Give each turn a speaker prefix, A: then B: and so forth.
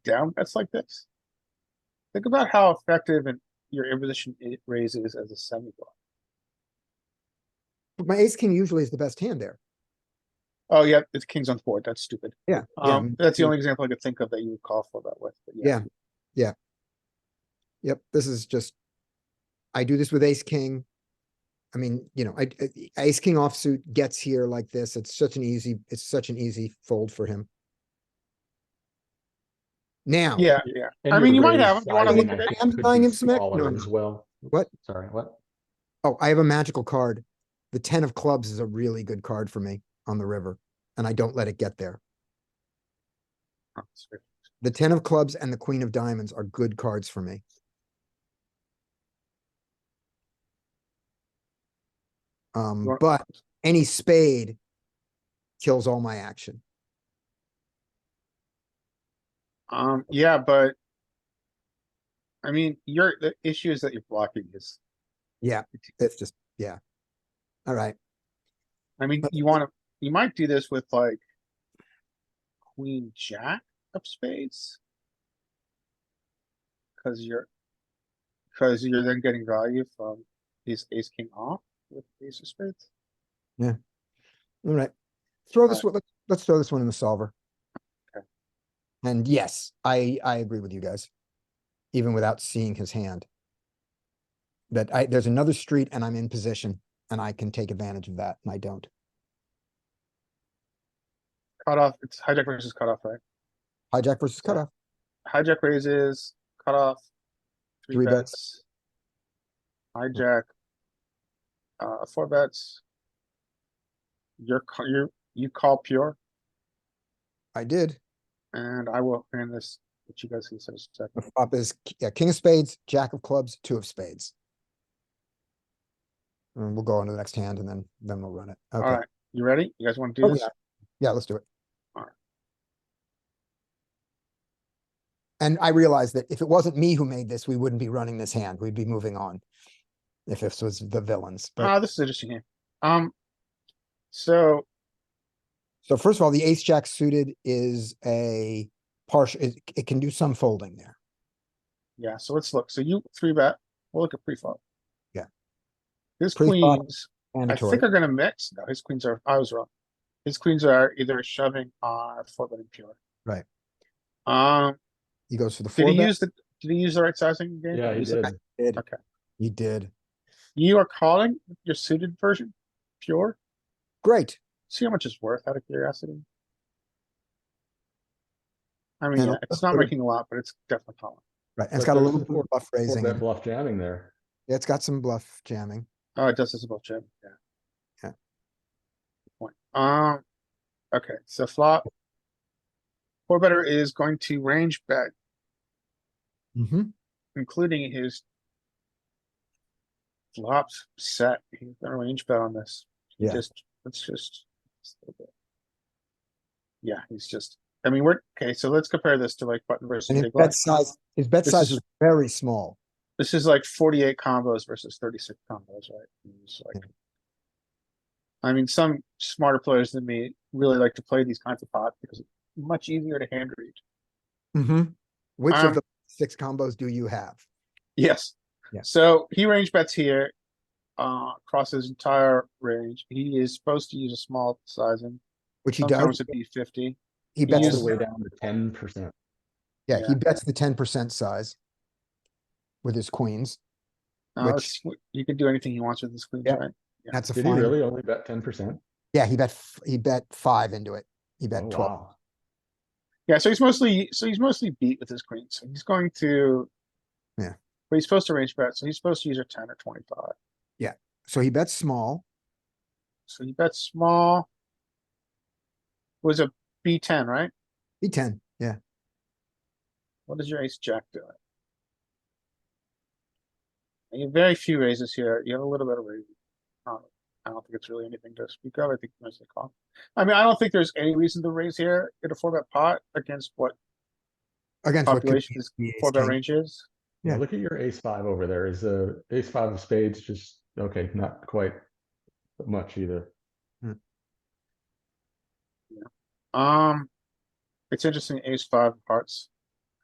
A: downbets like this? Think about how effective and your imposition i- raise is as a semi block.
B: But My ace king usually is the best hand there.
A: Oh, yeah, it's kings on board. That's stupid.
B: Yeah. yeah,
A: Um, that's the only example I could think of that you would call for that with, but yeah.
B: Yeah. Yep, this is just. I do this with ace king. I mean, you know, I, I- ace king offsuit gets here like this. It's such an easy, it's such an easy fold for him. Now,
A: Yeah, yeah. I mean, you might have him. You wanna look at it?
B: I'm buying him some ec- no,
C: smaller
B: no.
C: as well.
B: What?
C: Sorry, what?
B: oh, I have a magical card. The ten of clubs is a really good card for me on the river, and I don't let it get there.
A: Oh, that's great.
B: The ten of clubs and the queen of diamonds are good cards for me. Um,
A: You're-
B: but any spade kills all my action.
A: Um, yeah, but. I mean, your, the issue is that you're blocking his.
B: Yeah, it's just, yeah. All right,
A: I mean,
B: But-
A: you wanna, you might do this with like. Queen, jack of spades. Cause you're. Cause you're then getting value from his ace king off with ace of spades.
B: all right. Throw this one, let's, let's throw this one in the solver.
A: Okay.
B: And yes, I, I agree with you guys. Even without seeing his hand. That I, there's another street and I'm in position and I can take advantage of that and I don't.
A: Cut off, it's hijack versus cutoff, right?
B: Hijack versus cutoff.
A: Hijack raises, cutoff. Three
B: Three bets.
A: bets. Hijack. Uh, four bets. You're, ca- you're, you call pure
B: I did.
A: and I will hand this, what you guys can say in a second.
B: The flop is k- yeah, king of spades, jack of clubs, two of spades. And we'll go on to the next hand and then, then we'll run it. Okay.
A: Alright, you ready? You guys wanna do
B: Oh,
A: this?
B: yeah. Yeah, let's do it.
A: Alright.
B: And I realize that if it wasn't me who made this, we wouldn't be running this hand. We'd be moving on. If this was the villains, but
A: Ah, this is interesting here. Um, so,
B: so first of all, the ace jack suited is a partial, it, it can do some folding there.
A: yeah, so let's look. So you three bet, we'll look at pre-flop.
B: Yeah.
A: His
B: Pre-flop,
A: queens, I
B: Mandatory.
A: think are gonna mix. No, his queens are, I was wrong. His queens are either shoving or four betting pure.
B: Right.
A: Um,
B: He goes for the
A: did
B: four
A: he
B: bet.
A: use the, did he use the right sizing game?
C: Yeah, he
A: He's like,
C: did.
B: Did.
A: okay.
B: He did.
A: You are calling your suited version pure?
B: Great.
A: See how much it's worth out of curiosity? I mean,
B: And
A: yeah,
B: I'll
A: it's not
B: put it-
A: making a lot, but it's definitely calling.
B: Right. And it's
C: But
B: got a
C: there's
B: little
C: some
B: bit of bluff
C: Four
B: raising.
C: bet
B: in it.
C: bluff jamming there.
B: Yeah, It's got some bluff jamming.
A: Oh, it does this about Jim, yeah.
B: Yeah.
A: Good Point. Um, okay, so flop. Four better is going to range bet,
B: Mm-hmm.
A: including his flops set. He's gonna range bet on this. He
B: Yeah.
A: Just, let's just. just a little bit. Yeah, he's just, I mean, we're, okay, so let's compare this to like button versus
B: And his
A: big blind.
B: bet size, his bet
A: This
B: size
A: is-
B: is very small.
A: This is like forty-eight combos versus thirty-six combos, right? And it's like- I mean, some smarter players than me really like to play these kinds of pots because it's much easier to hand read.
B: Mm-hmm. Which
A: Um,
B: of the six combos do you have?
A: Yes.
B: Yeah.
A: So he range bets here, uh, across his entire range. He is supposed to use a small sizing,
B: Which he
A: sometimes
B: does.
A: it'd be fifty.
B: He
A: he
B: bets
C: All
A: uses-
C: the
B: the
C: way down to ten percent.
B: yeah,
A: yeah.
B: he bets the ten percent size with his queens.
A: Uh,
B: Which-
A: it's- you can do anything he wants with this queen,
B: Yeah.
A: right? Yeah.
B: That's a
C: Did he
B: fine.
C: really only bet ten percent? Oh,
B: Yeah, he bet f- he bet five into it. He
A: Oh,
B: bet twelve.
A: Yeah, so he's mostly, so he's mostly beat with his queen, so he's going to.
B: Yeah.
A: But he's supposed to range bet, so he's supposed to use a ten or twenty-five.
B: So he bets small.
A: So you bet small. Was a B ten, right?
B: He ten. Yeah.
A: What is your ace jack doing? You have very few raises here. You have a little bit of raising. Um, I don't think it's really anything to speak of. I think mostly call. I mean, I don't think there's any reason to raise here in a four bet pot against what
B: Against what could
A: population
B: be
A: is
B: the ace
A: four bet
B: king.
A: range is.
C: Yeah,
B: Yeah.
C: look at your ace five over there. Is uh ace five of spades just, okay, not quite much either.
A: Um, it's interesting. Ace five of hearts.